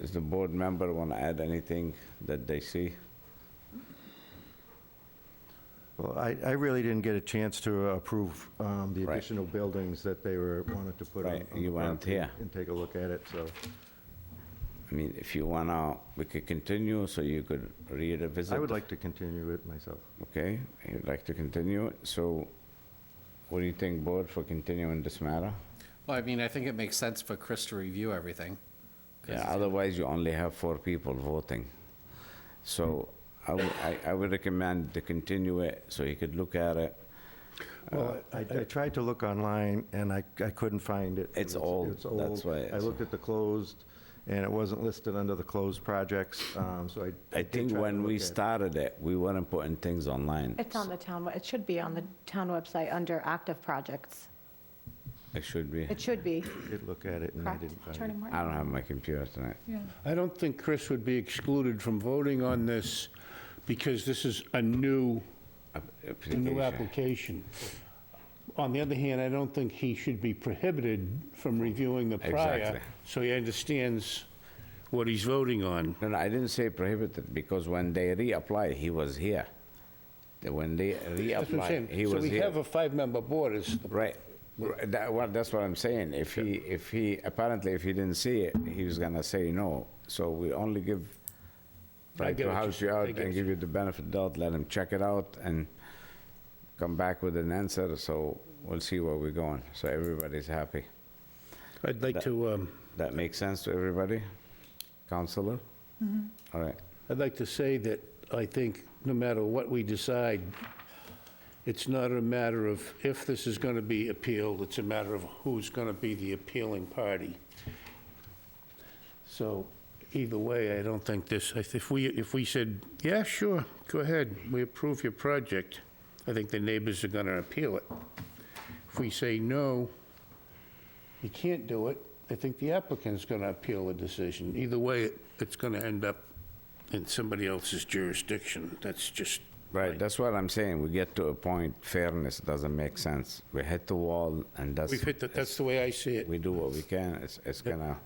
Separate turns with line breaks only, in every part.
Does the board member want to add anything that they see?
Well, I, I really didn't get a chance to approve um, the
Right.
additional buildings that they were, wanted to put on.
Right,
on the
you weren't
property
here.
And take a look at it, so,
I mean, if you want to, we could continue, so you could revisit.
I would like to continue it myself.
Okay, you'd like to continue, so what do you think, board, for continuing this matter?
Well, I mean, I think it makes sense for Chris to review everything.
Yeah,
'cause he's-
otherwise you only have four people voting. So I would, I, I would recommend to continue it, so you could look at it.
Well,
Uh,
I, I tried to look online, and I, I couldn't find it.
It's
It was-
old,
it's
that's
old.
why
I
it's-
looked at the closed, and it wasn't listed under the closed projects, um, so I.
I
did
think
try to
when we
look at it.
started it, we weren't putting things online.
It's on the town, it should be on the town website under active projects.
It should be.
It should be,
Did look at it, and I
correct?
didn't find it.
Attorney Moore?
I don't have my computer tonight.
I don't think Chris would be excluded from voting on this because this is a new, a new application. On the other hand, I don't think he should be prohibited from reviewing the
Exactly.
prior, so he understands what he's voting on.
No, no, I didn't say prohibited, because when they reapply, he was here. When they
That's what I'm
reapply, he
saying. So
was
we
here.
have a five-member board, is the
Right, Right, that, well, that's what I'm saying, if he, if he, apparently if he didn't see it, he was gonna say no, so we only give,
I
right
get
to
what you-
house you
I
out
get
and give you the benefit of doubt, let him check it out and come back with an answer, so we'll see where we're going, so everybody's happy.
I'd like to, um,
That makes sense to everybody? Counselor? All right,
I'd like to say that I think no matter what we decide, it's not a matter of if this is going to be appealed, it's a matter of who's going to be the appealing party. So either way, I don't think this, if if we, if we said, yeah, sure, go ahead, we approve your project, I think the neighbors are going to appeal it. If we say no, you can't do it, I think the applicant's going to appeal the decision. Either way, it's going to end up in somebody else's jurisdiction. That's just,
right, that's what I'm saying, we get to a point, fairness doesn't make sense, we hit the wall, and that's.
we've hit, the- that's the way I see it.
we do what we can, it's, it's gonna,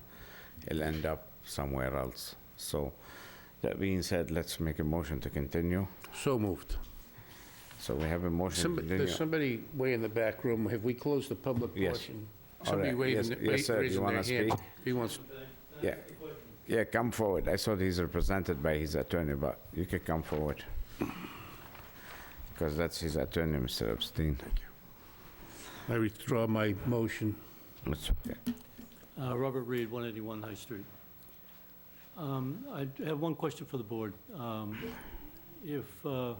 it'll end up somewhere else. So, that being said, let's make a motion to continue.
So moved.
So we have a motion to
Somebody,
continue.
there's somebody way in the back room. Have we closed the public
Yes.
portion?
All
Somebody
right.
waving,
Yes-
the-
yes,
ra-
sir. Do you
raising their
wanna
hand.
speak?
He wants,
Yeah, yeah, come forward. I thought he's represented by his attorney, but you can come forward. Because that's his attorney, Mr. Epstein.
I withdraw my motion.
That's okay.
Uh, Robert Reed, 181 High Street. Um, I d- have one question for the board. Um, If, uh,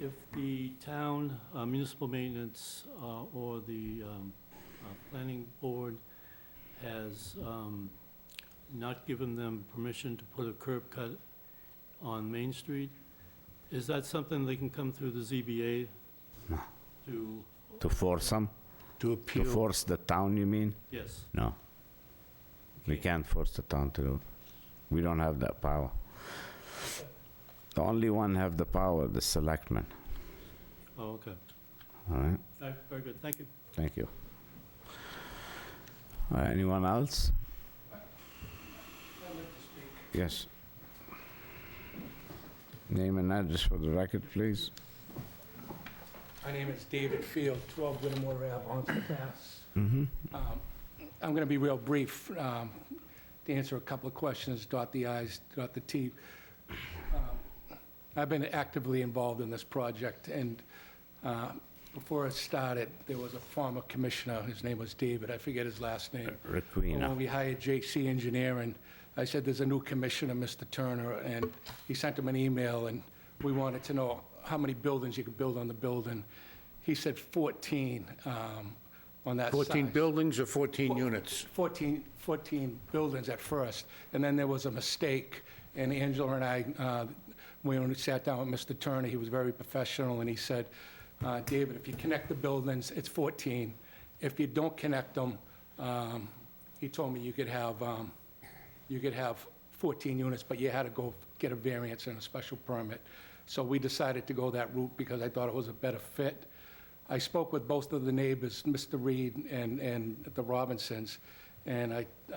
if the town uh, municipal maintenance uh, or the um, uh, planning board has um, not given them permission to put a curb cut on Main Street, is that something they can come through the ZBA to,
To force him,
To
to
appeal,
force the town, you mean?
yes?
No. We can't force the town to, do. we don't have that power. The only one have the power, the selectmen,
Oh, okay.
all right?
All right, Very good, thank you.
Thank you. Uh, Anyone else? Yes. Name and address for the record, please.
My name is David Field, 12 Whittemore Ave, Onset, Mass. Um, I'm going to be real brief um, to answer a couple of questions, dot the i's, dot the t. Um, I've been actively involved in this project, and uh, before it started, there was a former commissioner, his name was David, I forget his last name. When
Requena.
we hired J.C. Engineering, I said, there's a new commissioner, Mr. Turner, and he sent him an email, and we wanted to know how many buildings you could build on the building. He said 14 um, on that
14
size.
buildings or 14 units?
14, 14 buildings at first, and then there was a mistake, and Angela and I, uh, when we sat down with Mr. Turner, he was very professional, and he said, uh, David, if you connect the buildings, it's 14. If you don't connect them, um, he told me you could have, um, you could have 14 units, but you had to go get a variance and a special permit. So we decided to go that route because I thought it was a better fit. I spoke with both of the neighbors, Mr. Reed and, and the Robinsons, and I,